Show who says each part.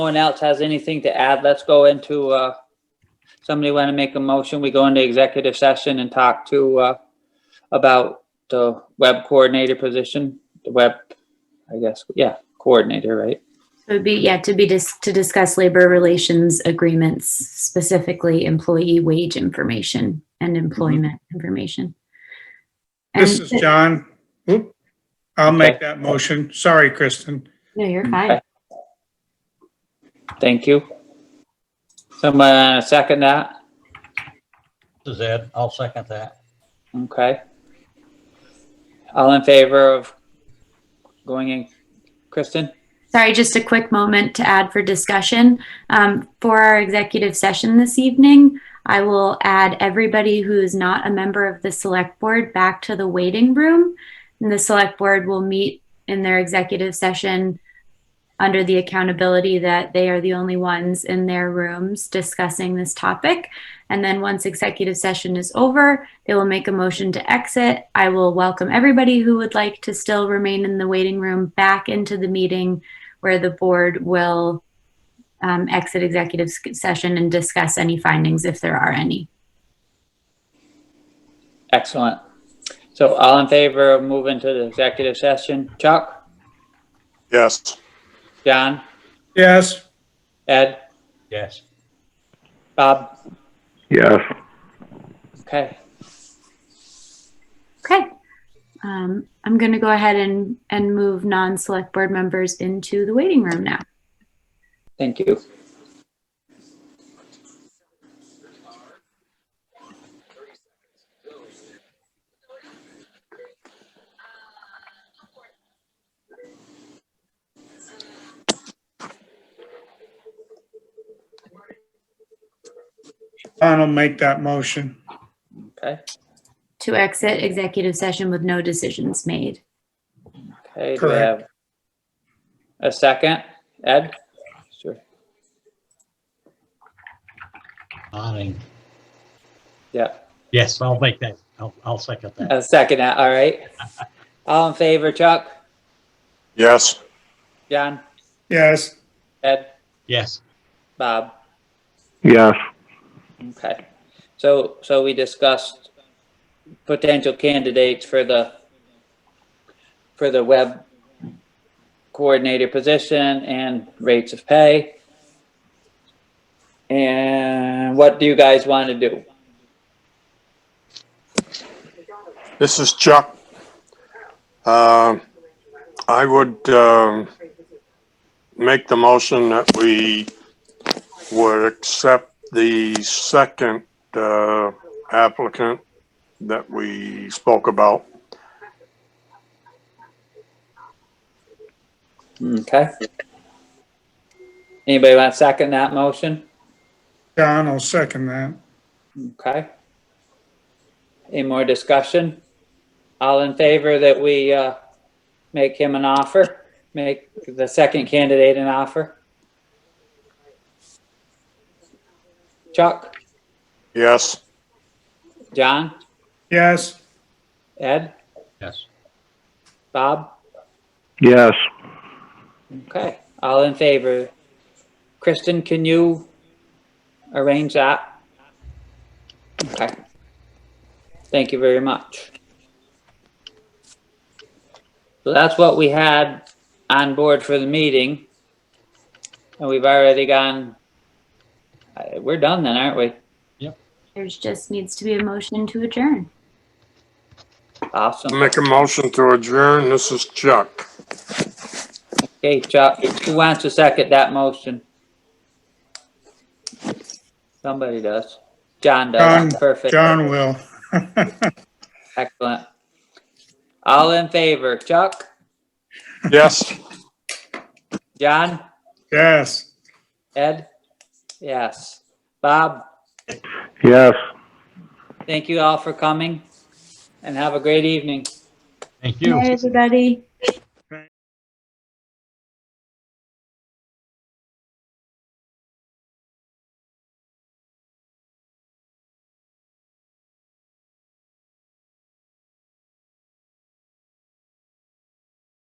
Speaker 1: one else has anything to add, let's go into, uh, somebody want to make a motion? We go into executive session and talk to, uh, about the web coordinator position, the web, I guess, yeah, coordinator, right?
Speaker 2: So it'd be, yeah, to be, dis- to discuss labor relations agreements, specifically employee wage information and employment information. And-
Speaker 3: Mm-hmm. This is John. Oop. I'll make that motion. Sorry, Kristen.
Speaker 2: No, you're fine.
Speaker 1: Thank you. Somebody want to second that?
Speaker 4: This is Ed. I'll second that.
Speaker 1: Okay. All in favor of going in, Kristen?
Speaker 2: Sorry, just a quick moment to add for discussion. Um, for our executive session this evening, I will add everybody who is not a member of the select board back to the waiting room. And the select board will meet in their executive session under the accountability that they are the only ones in their rooms discussing this topic. And then once executive session is over, they will make a motion to exit. I will welcome everybody who would like to still remain in the waiting room back into the meeting where the board will um, exit executive s- session and discuss any findings if there are any.
Speaker 1: Excellent. So all in favor of moving to the executive session? Chuck?
Speaker 5: Yes.
Speaker 1: John?
Speaker 3: Yes,
Speaker 1: Ed?
Speaker 4: Yes.
Speaker 1: Bob?
Speaker 5: Yes.
Speaker 1: Okay.
Speaker 2: Okay. Um, I'm going to go ahead and, and move non-select board members into the waiting room now.
Speaker 1: Thank you.
Speaker 3: John will make that motion.
Speaker 1: Okay.
Speaker 2: To exit executive session with no decisions made.
Speaker 1: Okay. Do we
Speaker 3: Correct.
Speaker 1: have a second? Ed? Sure.
Speaker 4: Nodding.
Speaker 1: Yeah.
Speaker 4: Yes, I'll make that. I'll, I'll second that.
Speaker 1: A second. uh, All right. All in favor, Chuck?
Speaker 5: Yes.
Speaker 1: John?
Speaker 3: Yes,
Speaker 1: Ed?
Speaker 4: Yes.
Speaker 1: Bob?
Speaker 5: Yes.
Speaker 1: Okay, so, so we discussed potential candidates for the, for the web coordinator position and rates of pay. And what do you guys want to do?
Speaker 5: This is Chuck. Um, I would um, make the motion that we would accept the second uh, applicant that we spoke about.
Speaker 1: Okay. Anybody want to second that motion?
Speaker 3: John will second that.
Speaker 1: Okay. Any more discussion? All in favor that we, uh, make him an offer? Make the second candidate an offer? Chuck,
Speaker 5: Yes.
Speaker 1: John,
Speaker 3: Yes,
Speaker 1: Ed,
Speaker 4: Yes.
Speaker 1: Bob?
Speaker 5: Yes.
Speaker 1: Okay, all in favor. Kristen, can you arrange that? Okay. Thank you very much. So that's what we had on board for the meeting. And we've already gone, uh, we're done then, aren't we?
Speaker 2: There's just needs to be a motion to adjourn.
Speaker 1: Awesome.
Speaker 5: Make a motion to adjourn. This is Chuck.
Speaker 1: Okay, Chuck, who wants to second that motion? Somebody does. John does,
Speaker 3: John-
Speaker 1: perfect.
Speaker 3: John will.
Speaker 1: Excellent. All in favor, Chuck,
Speaker 5: Yes.
Speaker 1: John,
Speaker 3: Yes.
Speaker 1: Ed? Yes. Bob,
Speaker 5: Yes.
Speaker 1: thank you all for coming and have a great evening.
Speaker 4: Thank you.
Speaker 2: Bye, everybody.